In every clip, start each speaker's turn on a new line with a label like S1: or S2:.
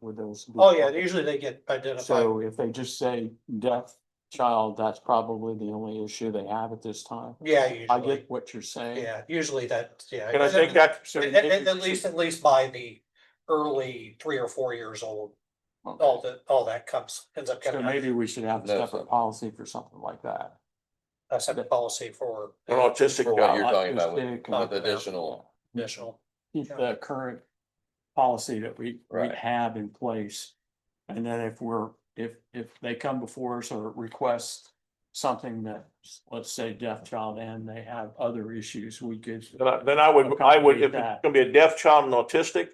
S1: with those.
S2: Oh, yeah, usually they get identified.
S1: So if they just say deaf child, that's probably the only issue they have at this time.
S2: Yeah,
S1: I
S2: usually,
S1: get what you're saying.
S2: yeah, usually that, yeah.
S3: And I think that should.
S2: At, at- at least, at least by the early three or four years old,
S1: Okay.
S2: all that, all that comes, ends up
S1: So
S2: coming out,
S1: maybe we should have a
S4: That's-
S1: separate policy for something like that.
S2: a separate policy for
S3: An autistic
S4: For what
S3: guy,
S4: you're talking about with-
S1: Autistic and-
S4: with additional,
S2: additional.
S1: Keep the current policy that we, we
S4: Right.
S1: have in place. And then if we're, if, if they come before us or request something that, let's say deaf child and they have other issues, we could.
S3: Then I, then I would, I would, if it's
S1: Accommodate that.
S3: gonna be a deaf child and autistic,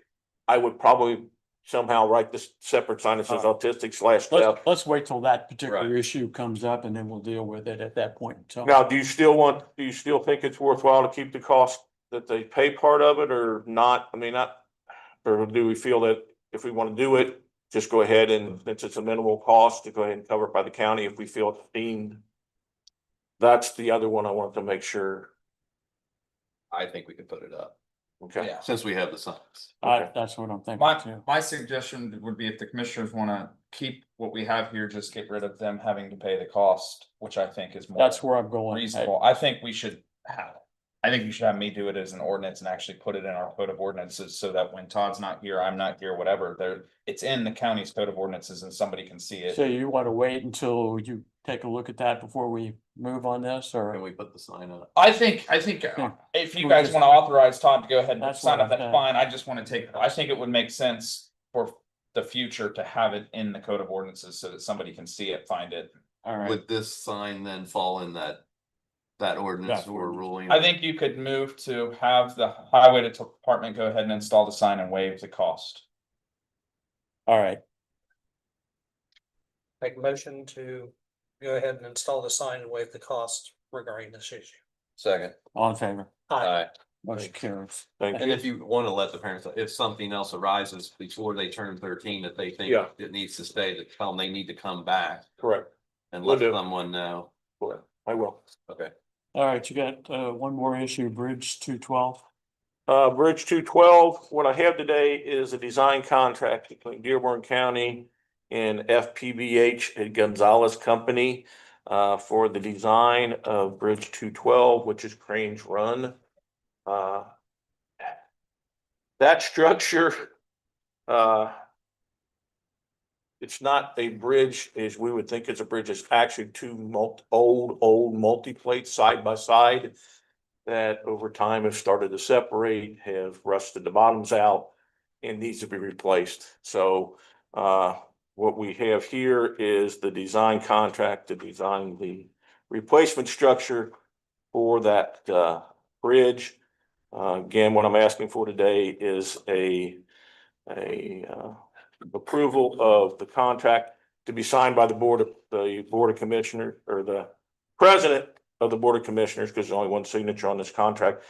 S3: I would probably somehow write this separate sign that says
S1: Alright.
S3: autistic slash deaf.
S1: Oh. Let's, let's wait till that particular
S4: Right.
S1: issue comes up and then we'll deal with it at that point. in time.
S3: Now, do you still want, do you still think it's worthwhile to keep the cost that they pay part of it or not? I mean, not, or do we feel that if we want to do it, just go ahead and since it's a minimal cost to go ahead and cover it by the county if we feel it's deemed? That's the other one I wanted to make sure.
S4: I think we could put it up,
S3: Okay.
S4: since we have the signs.
S1: I, that's what I'm thinking
S5: My,
S1: too.
S5: my suggestion would be if the commissioners wanna keep what we have here, just get rid of them having to pay the cost, which I think is more.
S1: That's where I'm going.
S5: Reasonable, I think we should have, I think you should have me do it as an ordinance and actually put it in our code of ordinances, so that when Todd's not here, I'm not here, whatever, there. It's in the county's code of ordinances and somebody can see
S1: So
S5: it,
S1: you want to wait until you take a look at that before we move on this or?
S4: Can we put the sign up?
S5: I think, I think, uh,
S1: Yeah.
S5: if you
S1: We
S5: guys
S1: just-
S5: wanna authorize Todd to go ahead and
S1: Hmm. That's
S5: sign
S1: what
S5: up,
S1: I'm
S5: that's
S1: saying.
S5: fine, I just wanna take, I think it would make sense. For the future to have it in the code of ordinances, so that somebody can see it, find it.
S1: All right.
S4: Would this sign then fall in that, that ordinance
S1: That
S4: or
S1: ordinance.
S4: ruling?
S5: I think you could move to have the highway department go ahead and install the sign and waive the cost.
S1: All right.
S2: Make a motion to go ahead and install the sign and waive the cost regarding this issue.
S4: Second,
S1: All in favor?
S2: Aye.
S4: alright,
S1: Motion carries.
S3: Thank
S4: and if you wanna let the parents, know, if something else arises before they turn thirteen that they think
S3: Yeah.
S4: it needs to stay, to tell them they need to come back
S3: Correct.
S4: and
S3: Will
S4: let
S3: do.
S4: someone know.
S3: I will.
S4: Okay.
S1: All right, you got uh one more issue, Bridge two twelve.
S3: Uh, Bridge two twelve, what I have today is a design contract between Dearborn County and FPBH and Gonzalez Company uh, for the design of Bridge two twelve, which is Cranes Run. Uh, That structure, uh, it's not a bridge as we would think it's a bridge. It's actually two mult, old, old multi-plate side by side that over time have started to separate, have rusted the bottoms out and needs to be replaced. So uh, what we have here is the design contract to design the replacement structure for that uh, bridge. Uh, Again, what I'm asking for today is a, a uh, approval of the contract to be signed by the board, of the Board of Commissioner or the president of the Board of Commissioners, because there's only one signature on this contract.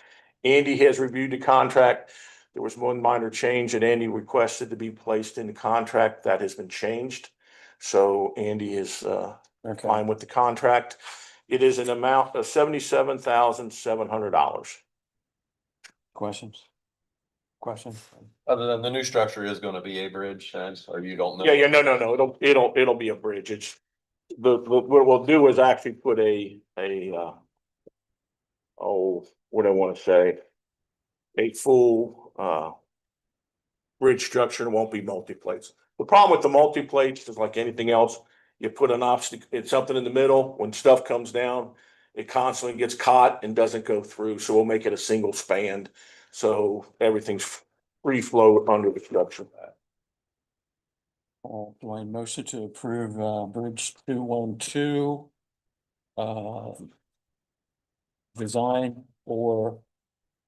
S3: Andy has reviewed the contract. There was one minor change that Andy requested to be placed in the contract. That has been changed. So Andy is uh
S1: Okay,
S3: fine with the contract. It is an amount of seventy-seven thousand seven hundred dollars.
S1: questions? Questions?
S4: Other than the new structure is gonna be a bridge, and so you don't know.
S3: Yeah, yeah, no, no, no, it'll, it'll, it'll be a bridge. It's, the, the- what we'll do is actually put a, a, uh, oh, what do I wanna say? A full, uh, bridge structure, it won't be multi-plates. The problem with the multi-plates is like anything else, you put an obstacle, it's something in the middle, when stuff comes down, it constantly gets caught and doesn't go through, so we'll make it a single span. So everything's free flow under the structure.
S1: Well, do I motion to approve uh Bridge two one two? Uh. Design or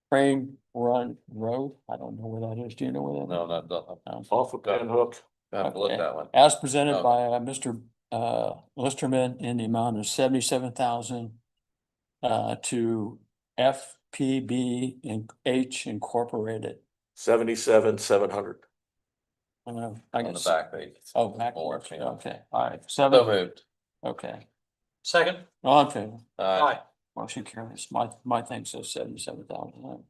S1: frame run road? I don't know where that is. Do you know where that
S4: No,
S1: is?
S4: not, not,
S1: No.
S3: Off of Van Hook.
S4: I haven't looked at that one.
S1: As presented
S4: Okay.
S1: by uh, Mr. uh, Listerman in the amount of seventy-seven thousand uh, to FPB and H Incorporated.
S3: Seventy-seven, seven hundred.
S1: Uh, I
S4: On the
S1: guess-
S4: back page.
S1: Oh, backwards,
S4: Or-
S1: okay, all right,
S4: So
S1: seven,
S4: moved.
S1: okay,
S2: Second,
S1: all in favor,
S4: Uh,
S2: aye,
S1: motion carries, my, my thing says seventy-seven thousand. All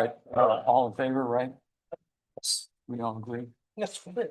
S1: right, uh, all in favor, right? We all agree?
S2: yes, we did.